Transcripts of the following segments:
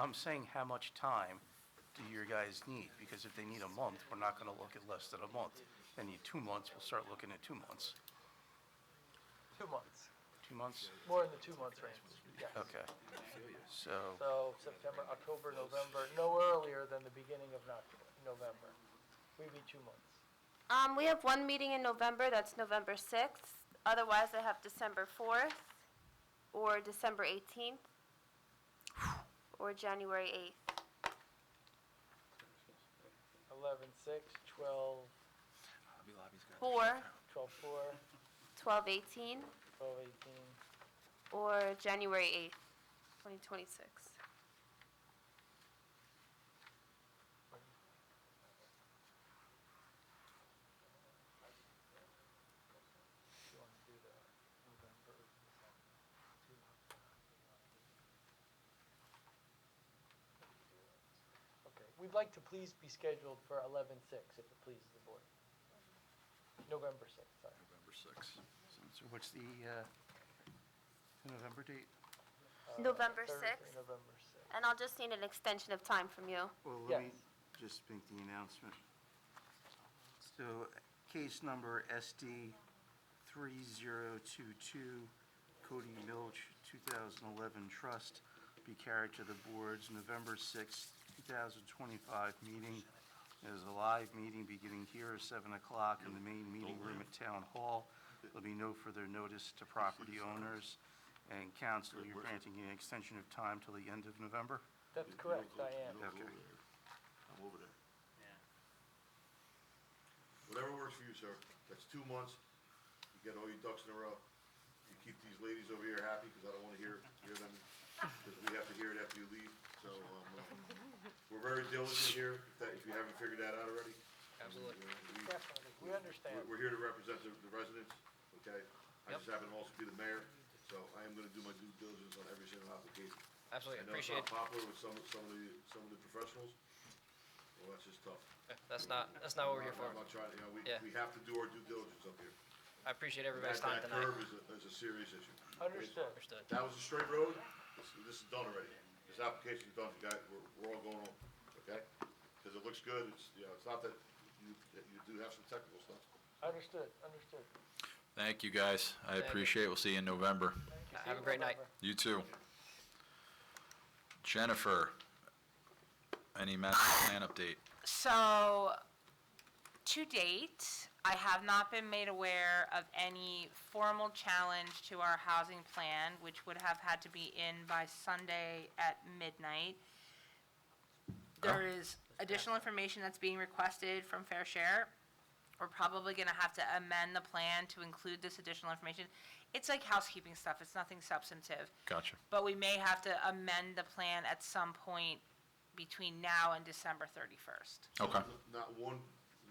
I'm saying how much time do your guys need? Because if they need a month, we're not going to look at less than a month. If They need two months, we'll start looking at two months. Two months, Two months? more in the two months range, yes. Okay. So, So September, October, November, no earlier than the beginning of Noc- November. We'd be two months. Um, we have one meeting in November, that's November 6th. Otherwise, I have December 4th, or December 18th, or January 8th. 11, 6, 12, Hobby Lobby's got. 4, 12, 4, 12, 18, 12, 18. or January 8th, 2026. You want to do the November, December, two months. Okay, we'd like to please be scheduled for 11, 6, if it pleases the board. November 6, sorry. November 6th. so what's the, uh, the November date? Uh, November Thursday, 6th? November 6. And I'll just need an extension of time from you. Well, let me Yes. just make the announcement. So case number SD 3022, Cody Milch, 2011 trust, be carried to the board's November 6, 2025 meeting. There's a live meeting beginning here at 7 o'clock in the main meeting room at Town Hall. There'll be no further notice to property owners. And council, you're granting an extension of time till the end of November? That's correct, I am. don't go Okay. I'm over there. Whatever works for you, sir. That's two months. You get all your ducks in a row. You keep these ladies over here happy, because I don't want to hear, hear them, because we have to hear it after you leave. So, um, uh, we're very diligent here, if that, if you haven't figured that out already. Absolutely. Definitely, we understand. We're here to represent the the residents, okay? I just happen to also be the mayor, so I am gonna do my due diligence on every single application. I Absolutely, know it's not appreciate it. popular with some, some of the, some of the professionals. Well, that's just tough. That's not, that's not what we're here I'm for. not trying, you know, we, Yeah. we have to do our due diligence up here. I appreciate everybody's That, time that curve tonight. is a, is a serious issue. Understood. Understood. That was a straight road, this, this is done already. This application's done, you guys, we're, we're all going home, okay? Because it looks good, it's, you know, it's not that you, that you do have some technical stuff. Understood, understood. Thank you, guys. Thank I you. appreciate it. We'll see you in November. Thank you. Have See a you in great night. November. You too. Jennifer, any master plan update? So, to date, I have not been made aware of any formal challenge to our housing plan, which would have had to be in by Sunday at midnight. There is additional information that's being requested from Fair Share. We're probably gonna have to amend the plan to include this additional information. It's like housekeeping stuff, it's nothing substantive. Gotcha. But we may have to amend the plan at some point between now and December 31st. Okay. Not one,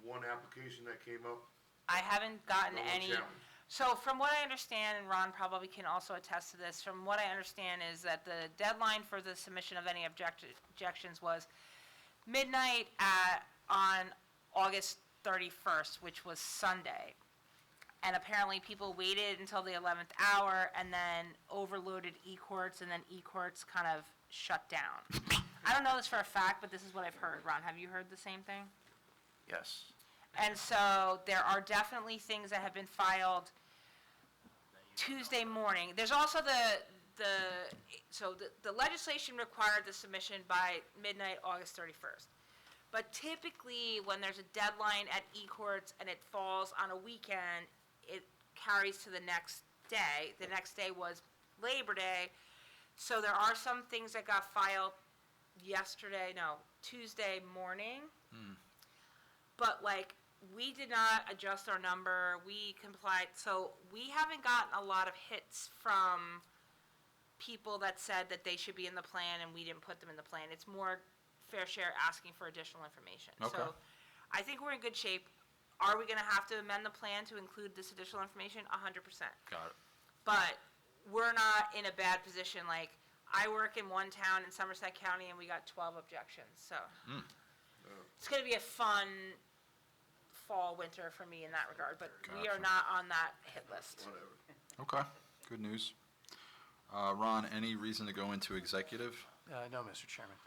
one application that came up, I haven't gotten No any. challenge. So from what I understand, and Ron probably can also attest to this, from what I understand is that the deadline for the submission of any object- objections was midnight at, on August 31st, which was Sunday. And apparently people waited until the 11th hour and then overloaded E-courts and then E-courts kind of shut down. I don't know this for a fact, but this is what I've heard. Ron, have you heard the same thing? Yes. And so there are definitely things that have been filed Tuesday morning. There's also the, the, so the the legislation required the submission by midnight, August 31st. But typically, when there's a deadline at E-courts and it falls on a weekend, it carries to the next day. The next day was Labor Day. So there are some things that got filed yesterday, no, Tuesday morning. But like, we did not adjust our number, we complied, so we haven't gotten a lot of hits from people that said that they should be in the plan and we didn't put them in the plan. It's more fair share asking for additional information. So Okay. I think we're in good shape. Are we gonna have to amend the plan to include this additional information? A hundred percent Got it. but we're not in a bad position. Like, I work in one town in Somerset County and we got twelve objections, so. It's gonna be a fun fall, winter for me in that regard, but we are Gotcha. not on that hit list. whatever. Okay. Good news. Uh, Ron, any reason to go into executive? Uh, No, Mr. Chairman.